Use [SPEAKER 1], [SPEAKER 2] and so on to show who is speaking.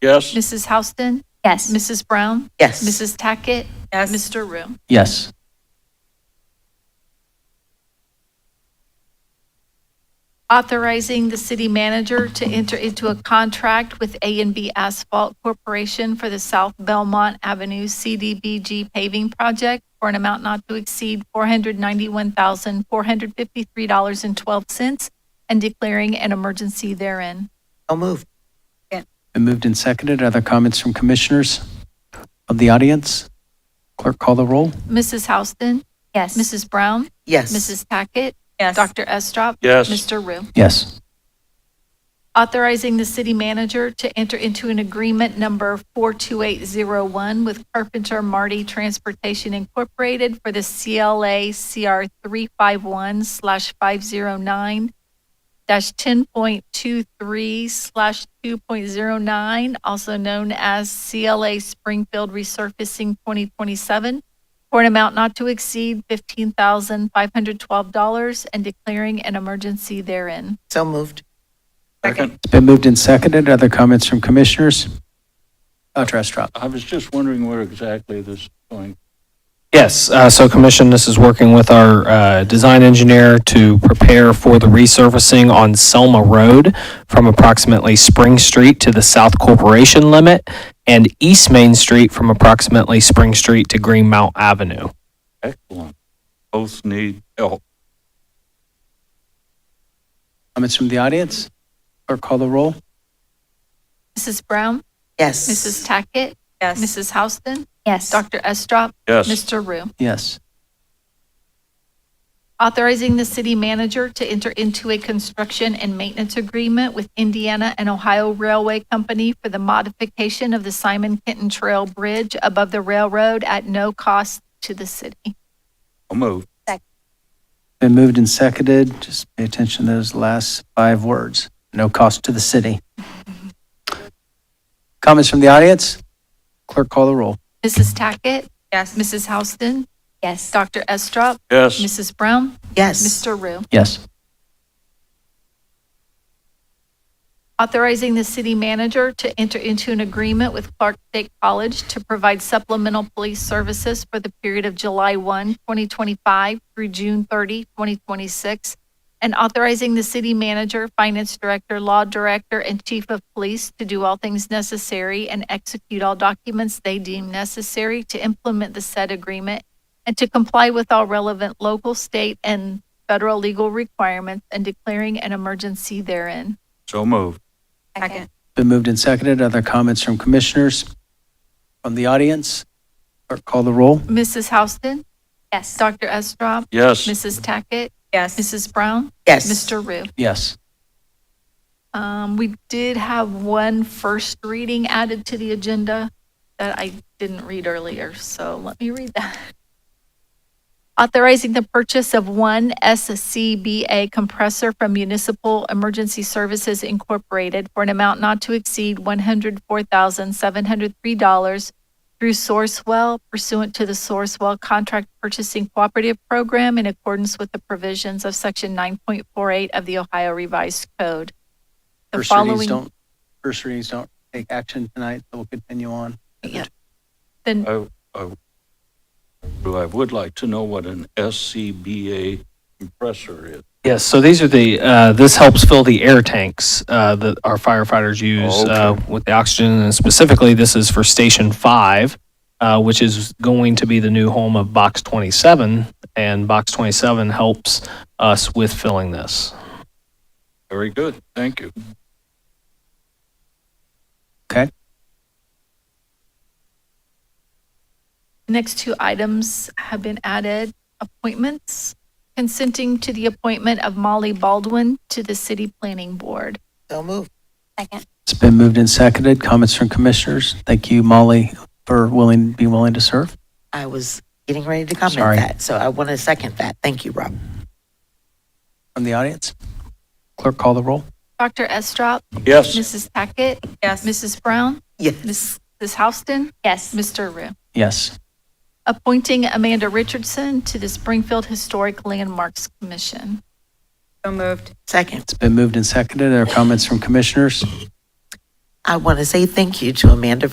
[SPEAKER 1] Yes.
[SPEAKER 2] Mrs. Houston,
[SPEAKER 3] Yes.
[SPEAKER 2] Mrs. Brown,
[SPEAKER 4] Yes.
[SPEAKER 2] Mrs. Tackett,
[SPEAKER 5] Yes.
[SPEAKER 2] Mr. Room.
[SPEAKER 6] Yes.
[SPEAKER 2] Authorizing the city manager to enter into a contract with A and B Asphalt Corporation for the South Belmont Avenue CDBG paving project for an amount not to exceed $491,453.12 and declaring an emergency therein.
[SPEAKER 4] So moved.
[SPEAKER 6] Been moved and seconded. Other comments from commissioners of the audience? Clerk, call the roll.
[SPEAKER 2] Mrs. Houston,
[SPEAKER 3] Yes.
[SPEAKER 2] Mrs. Brown,
[SPEAKER 4] Yes.
[SPEAKER 2] Mrs. Tackett,
[SPEAKER 5] Yes.
[SPEAKER 2] Dr. Estrop.
[SPEAKER 1] Yes.
[SPEAKER 2] Mr. Rue.
[SPEAKER 6] Yes.
[SPEAKER 2] authorizing the city manager to enter into an agreement number 42801 with Carpenter Marty Transportation Incorporated for the CLA CR 351/509-10.23/2.09, slash 2.09, also known as CLA Springfield Resurfacing 2027, for an amount not to exceed $15,512 and declaring an emergency therein.
[SPEAKER 4] So moved.
[SPEAKER 5] Second.
[SPEAKER 6] It's been moved and seconded. Other comments from commissioners? Dr. Estrop?
[SPEAKER 1] I was just wondering where exactly this is going.
[SPEAKER 7] Yes, uh, so Commission, this is working with our uh, design engineer to prepare for the resurfacing on Selma Road from approximately Spring Street to the South Corporation limit and East Main Street from approximately Spring Street to Greenmount Avenue.
[SPEAKER 1] Excellent. Both need help.
[SPEAKER 6] Comments from the audience? Clerk, call the roll.
[SPEAKER 2] Mrs. Brown?
[SPEAKER 4] Yes.
[SPEAKER 2] Mrs. Tackett,
[SPEAKER 5] Yes.
[SPEAKER 2] Mrs. Houston,
[SPEAKER 3] Yes.
[SPEAKER 2] Dr. Estrop,
[SPEAKER 1] Yes.
[SPEAKER 2] Mr. Rue.
[SPEAKER 6] Yes.
[SPEAKER 2] Authorizing the city manager to enter into a construction and maintenance agreement with Indiana and Ohio Railway Company for the modification of the Simon Kenton Trail Bridge above the railroad at no cost to the city.
[SPEAKER 1] I'll move.
[SPEAKER 6] Been moved and seconded. Just pay attention to those last five words. No cost to the city. Comments from the audience? Clerk, call the roll.
[SPEAKER 2] Mrs. Tackett,
[SPEAKER 5] Yes.
[SPEAKER 2] Mrs. Houston,
[SPEAKER 3] Yes.
[SPEAKER 2] Dr. Estrop,
[SPEAKER 1] Yes.
[SPEAKER 2] Mrs. Brown,
[SPEAKER 4] Yes.
[SPEAKER 2] Mr. Rue.
[SPEAKER 6] Yes.
[SPEAKER 2] authorizing the city manager to enter into an agreement with Clark State College to provide supplemental police services for the period of July 1, 2025 through June 30, 2026, and authorizing the city manager, finance director, law director, and chief of police to do all things necessary and execute all documents they deem necessary to implement the said agreement and to comply with all relevant local, state, and federal legal requirements and declaring an emergency therein.
[SPEAKER 1] So moved.
[SPEAKER 5] Second.
[SPEAKER 6] Been moved and seconded. Other comments from commissioners? From the audience? Clerk, call the roll.
[SPEAKER 2] Mrs. Houston,
[SPEAKER 3] Yes.
[SPEAKER 2] Dr. Estrop,
[SPEAKER 1] Yes.
[SPEAKER 2] Mrs. Tackett,
[SPEAKER 5] Yes.
[SPEAKER 2] Mrs. Brown,
[SPEAKER 4] Yes.
[SPEAKER 2] Mr. Rue.
[SPEAKER 6] Yes.
[SPEAKER 2] Um, we did have one first reading added to the agenda that I didn't read earlier, so let me read that. Authorizing the purchase of one SCBA compressor from Municipal Emergency Services Incorporated for an amount not to exceed $104,703 through Sourcewell pursuant to the Sourcewell Contract Purchasing Cooperative Program in accordance with the provisions of Section 9.48 of the Ohio Revised Code. The
[SPEAKER 6] First readings
[SPEAKER 2] following-
[SPEAKER 6] don't, first readings don't take action tonight, so we'll continue on.
[SPEAKER 2] Yeah. Then
[SPEAKER 1] I, I, I would like to know what an SCBA compressor is.
[SPEAKER 7] Yes, so these are the, uh, this helps fill the air tanks, uh, that our firefighters use,
[SPEAKER 1] Okay.
[SPEAKER 7] uh, with the oxygen. And specifically, this is for Station Five, uh, which is going to be the new home of Box Twenty-seven. And Box Twenty-seven helps us with filling this.
[SPEAKER 1] Very good. Thank you.
[SPEAKER 2] Next two items have been added, appointments, consenting to the appointment of Molly Baldwin to the City Planning Board.
[SPEAKER 4] So moved.
[SPEAKER 3] Second.
[SPEAKER 6] It's been moved and seconded. Comments from commissioners? Thank you, Molly, for willing, be willing to serve.
[SPEAKER 4] I was getting ready to comment
[SPEAKER 6] Sorry.
[SPEAKER 4] that, so I want to second that. Thank you, Rob.
[SPEAKER 6] From the audience? Clerk, call the roll.
[SPEAKER 2] Dr. Estrop,
[SPEAKER 1] Yes.
[SPEAKER 2] Mrs. Tackett,
[SPEAKER 5] Yes.
[SPEAKER 2] Mrs. Brown,
[SPEAKER 4] Yes.
[SPEAKER 2] Mrs. Houston,
[SPEAKER 3] Yes.
[SPEAKER 2] Mr. Rue.
[SPEAKER 6] Yes.
[SPEAKER 2] Appointing Amanda Richardson to the Springfield Historic Landmarks Commission.
[SPEAKER 5] So moved.
[SPEAKER 4] Second.
[SPEAKER 6] It's been moved and seconded. Are there comments from commissioners?
[SPEAKER 4] I want to say thank you to Amanda